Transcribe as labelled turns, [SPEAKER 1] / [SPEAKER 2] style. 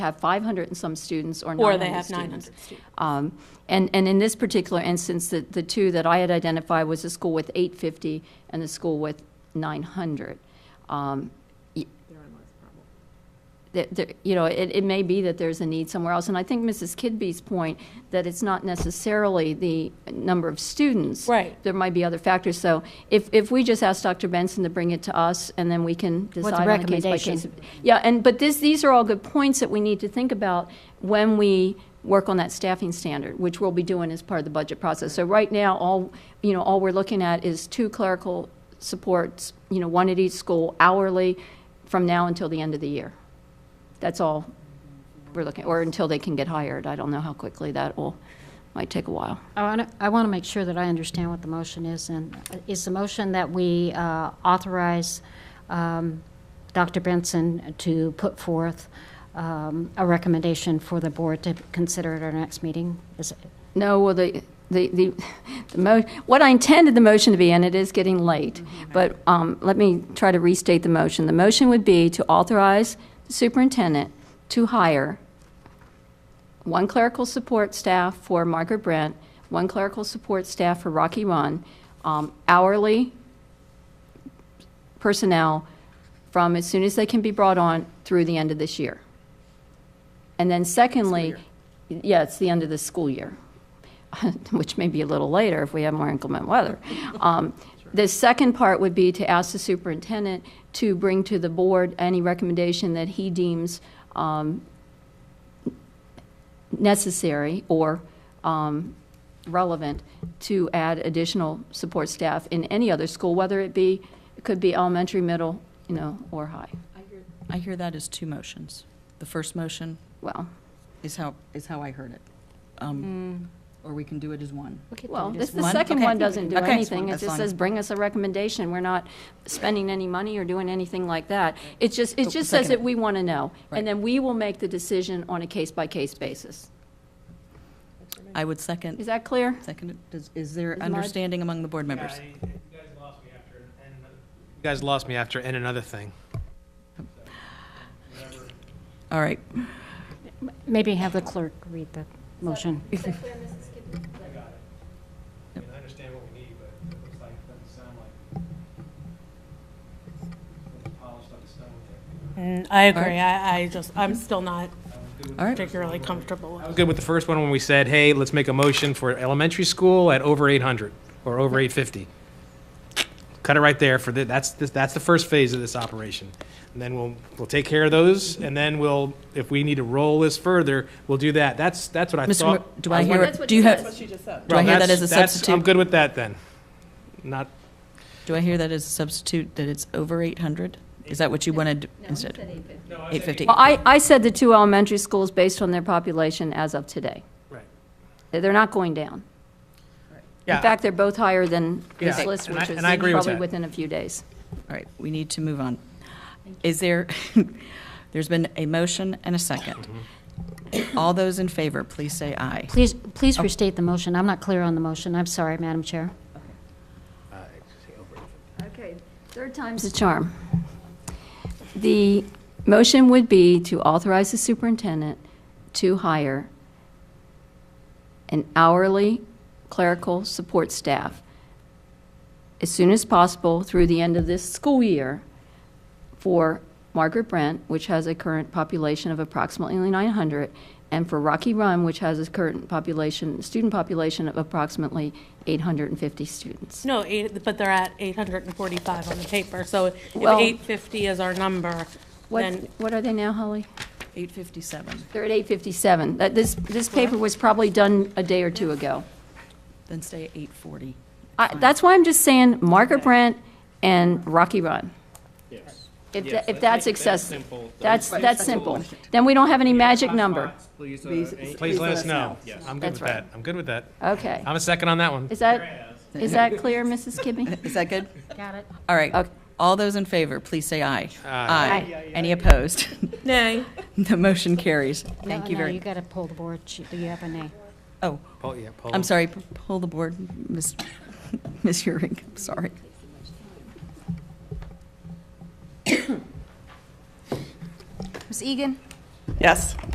[SPEAKER 1] have 500 and some students or 900
[SPEAKER 2] Or they have
[SPEAKER 1] students.
[SPEAKER 2] 900 students.
[SPEAKER 1] Um, And, and in this particular instance, the, the two that I had identified was the school with 850 and the school with 900. Um, y- that- that, You know, it, it may be that there's a need somewhere else, and I think Mrs. Kidby's point, that it's not necessarily the number of students.
[SPEAKER 2] Right.
[SPEAKER 1] There might be other factors, so if, if we just ask Dr. Benson to bring it to us, and then we can
[SPEAKER 3] With
[SPEAKER 1] decide on a case-by-case.
[SPEAKER 3] recommendation.
[SPEAKER 1] Yeah, and, but this, these are all good points that we need to think about when we work on that staffing standard, which we'll be doing as part of the budget process. So right now, all, you know, all we're looking at is two clerical supports, you know, one at each school hourly from now until the end of the year. That's all we're looking, or until they can get hired. I don't know how quickly that will, might take a while.
[SPEAKER 3] I want to, I want to make sure that I understand what the motion is, and uh, is the motion that we uh, authorize um, Dr. Benson to put forth um, a recommendation for the board to consider at our next meeting? Is it-
[SPEAKER 1] No, well, the, the, the, the mo, what I intended the motion to be, and it is getting late, but, um, let me try to restate the motion. The motion would be to authorize the superintendent to hire one clerical support staff for Margaret Brent, one clerical support staff for Rocky Run, um, hourly personnel from as soon as they can be brought on through the end of this year. And then secondly, yeah, it's the end of the school year, which may be a little later if we have more inclement weather. Um, The second part would be to ask the superintendent to bring to the board any recommendation that he deems um, necessary or um, relevant to add additional support staff in any other school, whether it be, it could be elementary, middle, you know, or high.
[SPEAKER 4] I hear that as two motions. The first motion
[SPEAKER 1] Well,
[SPEAKER 4] is how, is how I heard it. Um, Or we can do it as one.
[SPEAKER 1] Well, this,
[SPEAKER 4] just
[SPEAKER 1] the
[SPEAKER 4] one?
[SPEAKER 1] second
[SPEAKER 4] Okay.
[SPEAKER 1] one doesn't do
[SPEAKER 4] Okay.
[SPEAKER 1] anything. It
[SPEAKER 4] That's
[SPEAKER 1] just
[SPEAKER 4] fine.
[SPEAKER 1] says, bring us a recommendation. We're not spending any money or doing anything like that. It just, it
[SPEAKER 4] So,
[SPEAKER 5] Oh,
[SPEAKER 1] just says
[SPEAKER 4] second
[SPEAKER 1] that
[SPEAKER 4] it.
[SPEAKER 1] we want to know.
[SPEAKER 4] Right.
[SPEAKER 1] And then we will make the decision on a case-by-case basis.
[SPEAKER 4] I would
[SPEAKER 1] Is
[SPEAKER 4] second,
[SPEAKER 1] that clear?
[SPEAKER 4] second, it. Does- is there
[SPEAKER 1] my-
[SPEAKER 4] understanding among the board members?
[SPEAKER 5] Yeah, you you guys lost me after, and another- you guys lost me after, and another thing.
[SPEAKER 4] All right.
[SPEAKER 3] Maybe have the clerk read the motion.
[SPEAKER 5] I got it. I mean, I understand what we need, but it looks like, doesn't sound like it's polished like stone.
[SPEAKER 2] Mm, I
[SPEAKER 4] Alright.
[SPEAKER 2] agree. I, I just, I'm still not
[SPEAKER 4] All right.
[SPEAKER 2] particularly comfortable
[SPEAKER 5] I was
[SPEAKER 2] with
[SPEAKER 5] good with the first one when we said, hey, let's make a motion for elementary school at over 800 or over 850. Cut it right there for, the- that's, the- that's the first phase of this operation. And then we'll, we'll take care of those, and then we'll, if we need to roll this further, we'll do that. That's, that's what I
[SPEAKER 4] Mr.
[SPEAKER 5] thought.
[SPEAKER 4] Mo- Do I hear,
[SPEAKER 1] wondering- That's
[SPEAKER 4] it?
[SPEAKER 1] what
[SPEAKER 4] do you
[SPEAKER 1] she
[SPEAKER 4] have,
[SPEAKER 1] said.
[SPEAKER 4] do I
[SPEAKER 5] Well,
[SPEAKER 4] hear that
[SPEAKER 5] that's-
[SPEAKER 4] as a
[SPEAKER 5] that's- I'm
[SPEAKER 4] substitute?
[SPEAKER 5] good with that then. Not,
[SPEAKER 4] Do I hear that as a substitute, that it's over 800? Is that what you wanted instead? 850.
[SPEAKER 1] Well, I, I said the two elementary schools based on their population as of today.
[SPEAKER 5] right.
[SPEAKER 1] They're not going down. In
[SPEAKER 5] Yeah,
[SPEAKER 1] fact, they're both higher than this
[SPEAKER 5] Yeah.
[SPEAKER 1] list,
[SPEAKER 5] And I-
[SPEAKER 1] which is
[SPEAKER 5] and I agree with
[SPEAKER 1] probably
[SPEAKER 5] that.
[SPEAKER 1] within a few days.
[SPEAKER 4] All right, we need to move on. Is there, there's been a motion and a second.
[SPEAKER 5] Mm-hmm.
[SPEAKER 4] All those in favor, please say aye.
[SPEAKER 3] Please, please
[SPEAKER 4] Oh.
[SPEAKER 3] restate the motion. I'm not clear on the motion. I'm sorry, Madam Chair.
[SPEAKER 1] Okay, third time's the charm. The motion would be to authorize the superintendent to hire an hourly clerical support staff as soon as possible through the end of this school year for Margaret Brent, which has a current population of approximately 900, and for Rocky Run, which has a current population, student population of approximately 850 students.
[SPEAKER 2] it. No, eight, but they're at 845 on the paper, so if
[SPEAKER 1] Well-
[SPEAKER 2] 850 is our number,
[SPEAKER 1] What,
[SPEAKER 2] then,
[SPEAKER 1] what are they now, Holly?
[SPEAKER 4] 857,
[SPEAKER 1] They're at 8:57. That- This, this paper was probably done a day or two ago.
[SPEAKER 4] then say 840.
[SPEAKER 1] I- That's why I'm just saying Margaret Brent and Rocky Run. Yes. If, tha- if that's excessive, that's, that's simple. Then we don't have any magic number.
[SPEAKER 5] please let us know. I'm good
[SPEAKER 1] That's
[SPEAKER 5] with
[SPEAKER 1] right.
[SPEAKER 5] that. I'm good with that.
[SPEAKER 1] Okay.
[SPEAKER 5] I'm a second on that one.
[SPEAKER 1] Is that, is that clear, Mrs. Kibbe?
[SPEAKER 4] Is that good?
[SPEAKER 3] Got it.
[SPEAKER 4] All right.
[SPEAKER 1] Okay.
[SPEAKER 4] All those in favor, please say aye.
[SPEAKER 5] Aye.
[SPEAKER 4] Any opposed?
[SPEAKER 2] nay.
[SPEAKER 4] The motion carries. Thank you
[SPEAKER 3] No, you
[SPEAKER 4] very,
[SPEAKER 3] got to pull the board. She- Do you have a nay?
[SPEAKER 4] oh,
[SPEAKER 5] Paul- yeah, Paul.
[SPEAKER 4] I'm sorry, p- pull the board, Ms. Ms. Euring, I'm sorry.
[SPEAKER 6] Ms. Egan?
[SPEAKER 7] Yes.